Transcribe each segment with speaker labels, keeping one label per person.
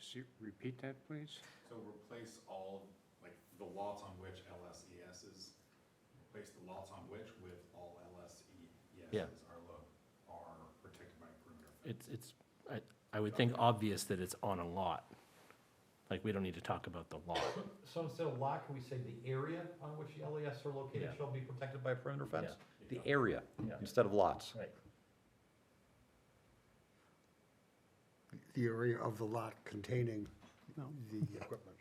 Speaker 1: see, repeat that, please?
Speaker 2: So replace all, like, the lots on which LSES is, replace the lots on which with all
Speaker 3: Yeah.
Speaker 2: LSESs are lo, are protected by perimeter fence.
Speaker 3: It's, it's, I, I would think obvious that it's on a lot. Like, we don't need to talk about the lot.
Speaker 4: So instead of lot, can we say the area on which the LES are located
Speaker 3: Yeah.
Speaker 4: shall be protected by a perimeter fence? The
Speaker 2: Yeah.
Speaker 4: area,
Speaker 3: Yeah.
Speaker 4: instead of lots.
Speaker 3: Right.
Speaker 5: the area of the lot containing the equipment.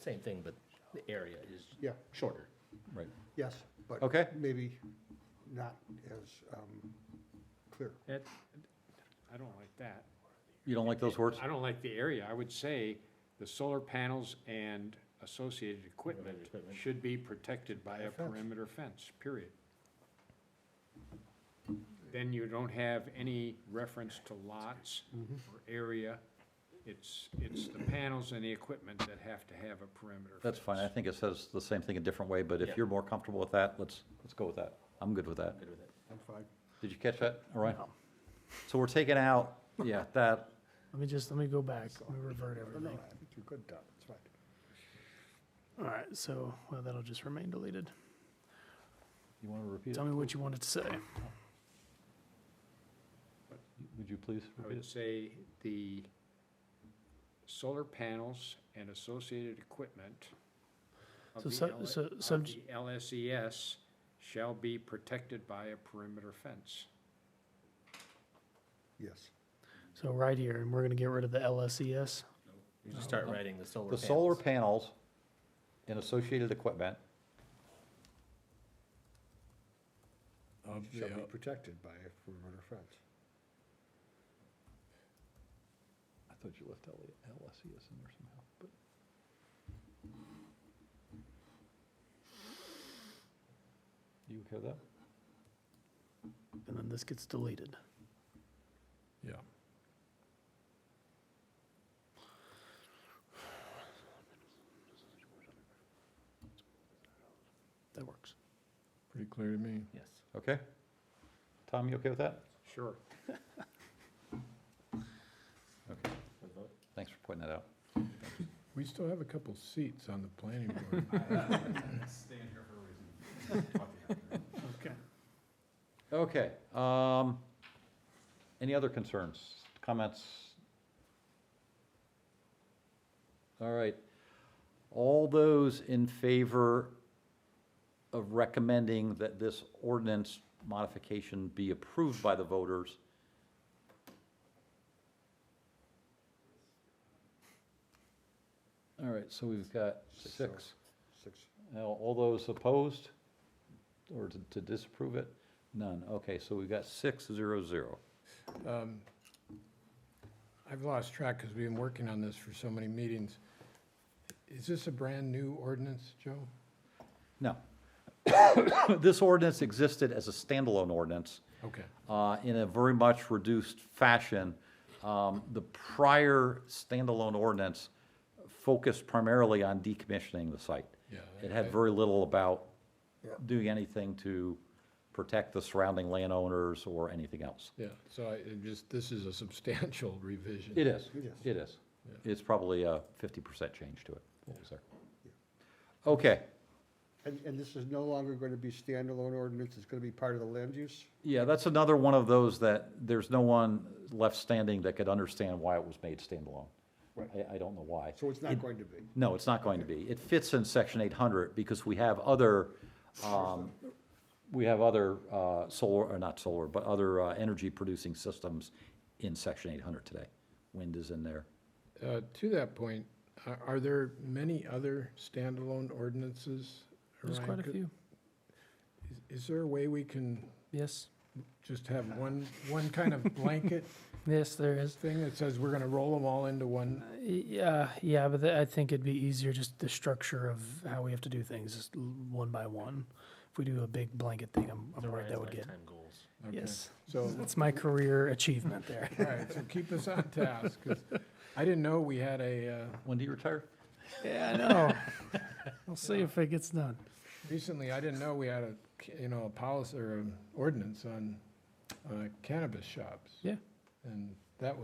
Speaker 3: Same thing, but the area is
Speaker 5: Yeah,
Speaker 3: shorter.
Speaker 4: Right.
Speaker 5: yes, but.
Speaker 4: Okay.
Speaker 5: Maybe not as um, clear.
Speaker 1: That, I don't like that.
Speaker 4: You don't like those words?
Speaker 1: I don't like the area. I would say the solar panels and associated equipment
Speaker 3: Equipment.
Speaker 1: should be protected by a
Speaker 5: Fence.
Speaker 1: perimeter fence, period. Then you don't have any reference to lots
Speaker 6: Mm-hmm.
Speaker 1: or area. It's, it's the panels and the equipment that have to have a perimeter.
Speaker 6: That's fine, I
Speaker 1: fence.
Speaker 6: think it says the same thing a different way, but
Speaker 3: Yeah.
Speaker 6: if you're more comfortable with that, let's, let's go with that. I'm good with that.
Speaker 3: Good with it.
Speaker 5: I'm fine.
Speaker 6: Did you catch that, All right. So we're taking out, yeah, that,
Speaker 7: Let me just, let me go back, let me revert
Speaker 5: No, no,
Speaker 7: everything.
Speaker 5: I think you're good, Don, it's fine.
Speaker 7: All right, so, well, that'll just remain deleted.
Speaker 6: you want to repeat
Speaker 7: Tell
Speaker 6: it?
Speaker 7: me what you wanted to say.
Speaker 6: Would you please
Speaker 1: I
Speaker 6: repeat
Speaker 1: would
Speaker 6: it?
Speaker 1: say the solar panels and associated equipment of
Speaker 7: So
Speaker 1: the
Speaker 7: sub-
Speaker 1: L-
Speaker 7: so
Speaker 1: of
Speaker 7: sub-
Speaker 1: the LSES shall be protected by a perimeter fence.
Speaker 5: Yes.
Speaker 7: So right here, and we're gonna get rid of the E LSES.
Speaker 3: You just start writing the solar
Speaker 6: The
Speaker 3: panels.
Speaker 6: solar panels and associated equipment
Speaker 5: Shall be protected by a perimeter fence.
Speaker 6: I thought you left LSES E in there somehow, but. You okay with that?
Speaker 7: And then this gets deleted.
Speaker 6: Yeah.
Speaker 7: That works.
Speaker 8: Pretty clear to me.
Speaker 3: Yes.
Speaker 6: Okay. Tom, you okay with that?
Speaker 1: Sure.
Speaker 6: Okay, thanks for pointing that out.
Speaker 8: We still have a couple seats on the planning board.
Speaker 2: I Stand here for a reason. Fuck yeah.
Speaker 7: Okay.
Speaker 6: Okay, um, any other concerns, comments? All right, all those in favor of recommending that this ordinance modification be approved by the voters? All right, so we've got six.
Speaker 5: Six.
Speaker 6: Now, all those opposed or to- to disapprove it? None. Okay, so we've got six, zero, zero.
Speaker 8: Um, I've lost track because we've been working on this for so many meetings. Is this a brand-new ordinance, Joe?
Speaker 6: No. This ordinance existed as a standalone ordinance
Speaker 8: Okay,
Speaker 6: uh, in a very much reduced fashion. Um, The prior standalone ordinance focused primarily on decommissioning the site.
Speaker 8: Yeah,
Speaker 6: It
Speaker 8: I-
Speaker 6: had very little about
Speaker 5: Yeah.
Speaker 6: doing anything to protect the surrounding landowners or anything else.
Speaker 8: yeah, so I, it just, this is a substantial revision.
Speaker 6: It is,
Speaker 5: Yes.
Speaker 6: it is.
Speaker 8: Yeah.
Speaker 6: It's probably a fifty percent change to it, what was there. Okay,
Speaker 5: And, and this is no longer going to be standalone ordinance, it's going to be part of the land use?
Speaker 6: yeah, that's another one of those that there's no one left standing that could understand why it was made standalone.
Speaker 5: Right.
Speaker 6: I, I don't know why.
Speaker 5: So it's not going to be?
Speaker 6: No, it's not going to be. It fits in section eight hundred because we have other, um, we have other, uh, solar, or not solar, but other, uh, energy producing systems in section eight hundred today. Wind is in there.
Speaker 8: Uh, To that point, are, are there many other standalone ordinances?
Speaker 7: There's
Speaker 8: Ryan?
Speaker 7: quite a
Speaker 8: Could-
Speaker 7: few.
Speaker 8: is- Is there a way we can
Speaker 7: Yes,
Speaker 8: just have one, one kind of blanket
Speaker 7: yes, there is.
Speaker 8: thing that says we're gonna roll them all into one?
Speaker 7: Uh, Yeah, yeah, but the- I think it'd be easier, just the structure of how we have to do things, just l- one by one. If we do a big blanket thing, I'm, I'm worried that would get,
Speaker 3: goals.
Speaker 8: Okay.
Speaker 7: yes.
Speaker 8: So-
Speaker 7: That's my career achievement there.
Speaker 8: All right, so keep us on task, 'cause I didn't know we had a, uh,
Speaker 6: When do you retire?
Speaker 7: Yeah, I know. We'll see if it gets done.
Speaker 8: recently, I didn't know we had a, ca- you know, a policy or an ordinance on uh, cannabis shops.
Speaker 7: Yeah.
Speaker 8: And